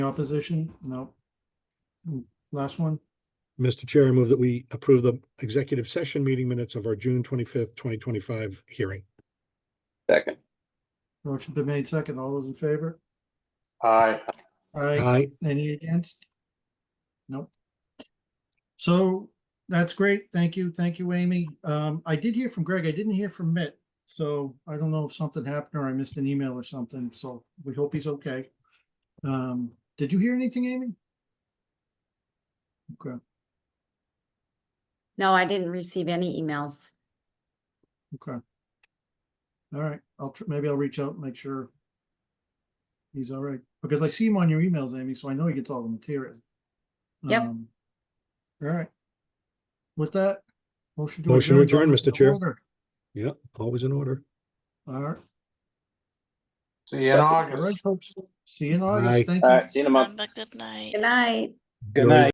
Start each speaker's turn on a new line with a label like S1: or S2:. S1: Opposition? No. Mm, Last one?
S2: Mr. Chair, I move that we approve the executive session meeting minutes of our June twenty-fifth, twenty twenty-five hearing.
S3: Second.
S1: Motion been made second. All those in favor?
S3: Aye.
S1: Aye.
S2: Aye.
S1: Any against? Nope. So that's great. Thank you. Thank you, Amy. Um, I did hear from Greg. I didn't hear from Mitt. So I don't know if something happened or I missed an email or something. So we hope he's okay. Um, did you hear anything, Amy? Okay,
S4: No, I didn't receive any emails.
S1: okay. All right, I'll, tr- maybe I'll reach out and make sure he's all right, because I see him on your emails, Amy, so I know he gets all the material.
S4: Yep.
S1: Um, All right. With that, motion to adjourn.
S2: Motion to adjourn,
S1: Dr.
S2: Mr. Chair.
S1: Holder.
S2: Yeah, always in order.
S1: All right,
S3: See you in
S1: all right,
S3: August.
S1: folks. See you in
S2: Aye.
S1: August. Thank
S3: All
S1: you.
S3: right, see you in a month.
S5: Have a good night.
S4: Good night.
S3: Good night.